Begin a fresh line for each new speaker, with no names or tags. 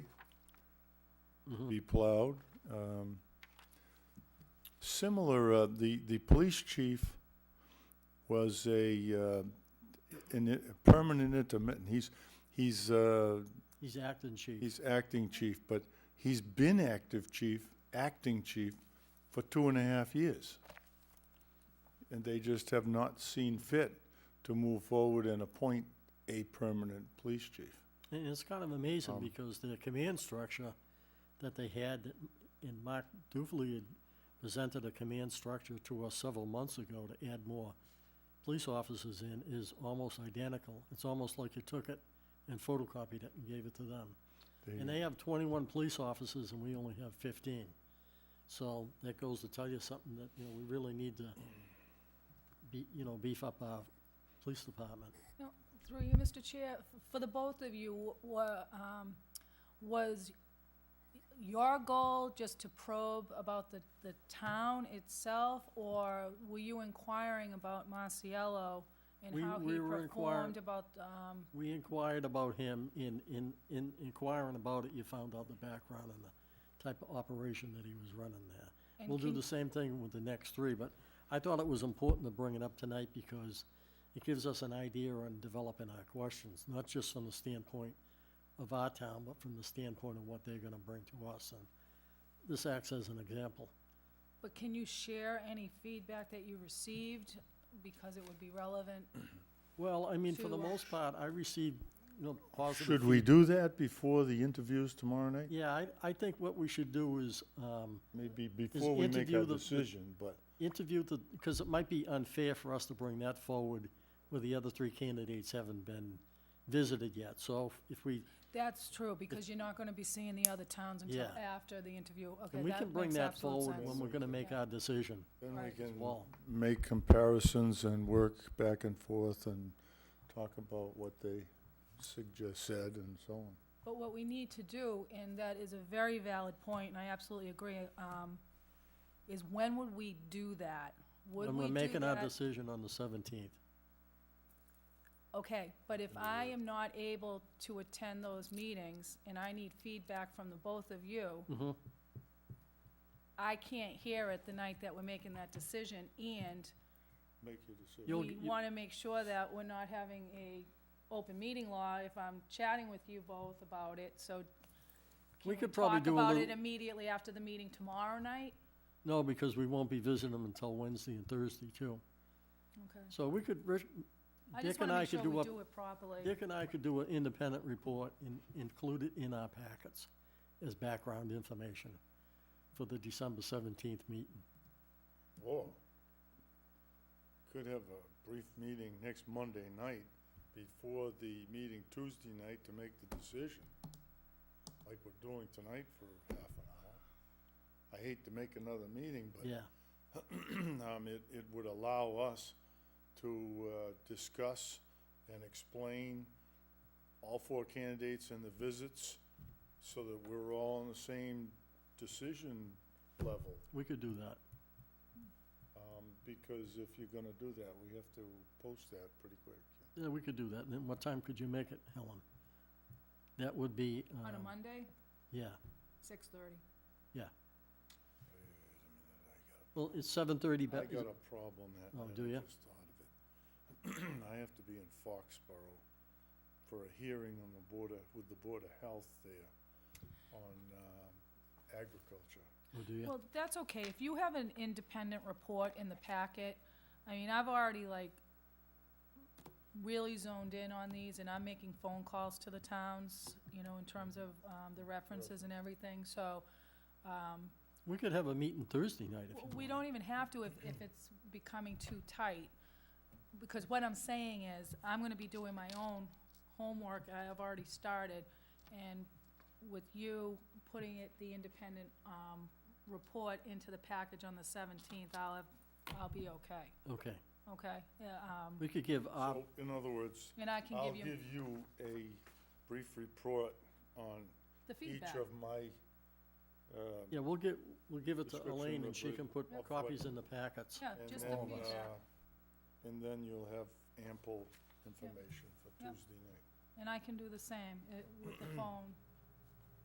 be plowed. Um, Similar, uh, the, the police chief was a, uh, an i- permanent intermittent. He's, he's, uh,
He's acting chief.
he's acting chief, but he's been active chief, acting chief, for two and a half years. And they just have not seen fit to move forward and appoint a permanent police chief.
And it's kind of amazing because the command structure that they had, that- and Mark Dufley had presented a command structure to us several months ago to add more police officers in, is almost identical. It's almost like you took it and photocopied it and gave it to them.
They-
And they have twenty-one police officers and we only have fifteen. So that goes to tell you something that, you know, we really need to be, you know, beef up our police department.
No, Through you, Mr. Chair, f- for the both of you, wa- um, was your goal just to probe about the, the town itself? Or were you inquiring about Marciello and
We-
how
we
he
were inquiring-
performed about, um,
We inquired about him, in, in, in inquiring about it, you found out the background and the type of operation that he was running there.
And
We'll do
can-
the same thing with the next three, but I thought it was important to bring it up tonight because it gives us an idea on developing our questions, not just from the standpoint of our town, but from the standpoint of what they're gonna bring to us, and this acts as an example.
but can you share any feedback that you received? Because it would be relevant.
Well, I mean, for the
To, uh,
most part, I received, you know, positive
Should we do that before the interviews tomorrow night?
Yeah, I, I think what we should do is, um,
Maybe before we make
interview
our
the- the-
decision, but
interview the, because it might be unfair for us to bring that forward where the other three candidates haven't been visited yet. So if- if we,
That's true, because you're not gonna be seeing the other towns until
Yeah.
after the interview. Okay,
and we can
that
bring
makes
that
absolute
forward when
sense.
we're gonna make our decision
then we
Right.
can
as well.
make comparisons and work back and forth and talk about what they suggest, said and so on.
But what we need to do, and that is a very valid point, and I absolutely agree, um, is when would we do that? Would
When
we
we're
do
making our
that-
decision on the seventeenth.
Okay, but if I am not able to attend those meetings, and I need feedback from the both of you,
Mm-hmm.
I can't hear it the night that we're making that decision, and
Make your decision.
You'll
we
g- you-
want to make sure that we're not having a open meeting law if I'm chatting with you both about it, so
We
can
could probably do a
Talk about it
little,
immediately after the meeting tomorrow night?
no, because we won't be visiting them until Wednesday and Thursday too.
Okay.
So we could, Rich-
I
Dick
just
and
wanna
I
make
could
sure we
do a
do it properly.
Dick and I could do an independent report and include it in our packets as background information for the December seventeenth meeting.
Or could have a brief meeting next Monday night before the meeting Tuesday night to make the decision, like we're doing tonight for half an hour. I hate to make another meeting, but
Yeah,
um, it, it would allow us to, uh, discuss and explain all four candidates and the visits so that we're all on the same decision level.
we could do that.
Um, because if you're gonna do that, we have to post that pretty quick.
Yeah, we could do that. And then what time could you make it, Helen? That would be,
On a
um,
Monday,
yeah,
six thirty.
yeah. Well, it's seven thirty,
I
but,
got a problem that
Oh,
night,
do
I
ya?
just thought of it. I have to be in Foxborough for a hearing on the Board of, with the Board of Health there on, um, agriculture.
we'll do you.
Well, that's okay. If you have an independent report in the packet, I mean, I've already like really zoned in on these and I'm making phone calls to the towns, you know, in terms of, um, the references and everything, so, um,
We could have a meeting Thursday night if you want.
We don't even have to if, if it's becoming too tight, because what I'm saying is, I'm gonna be doing my own homework, I have already started, and with you putting it, the independent, um, report into the package on the seventeenth, I'll have, I'll be okay,
Okay,
okay? Yeah, um,
we could give, uh,
So, in other words,
and I can
I'll
give you
give you a brief report on
the
each
feedback.
of my, um,
yeah, we'll get, we'll give it to
Description
Elaine and
of
she
the-
can put
of what-
copies in the packets.
Yeah,
And
just the
then,
feedback,
uh, And then you'll have ample information for
Yep.
Tuesday night.
and I can do the same, it, uh, with the phone,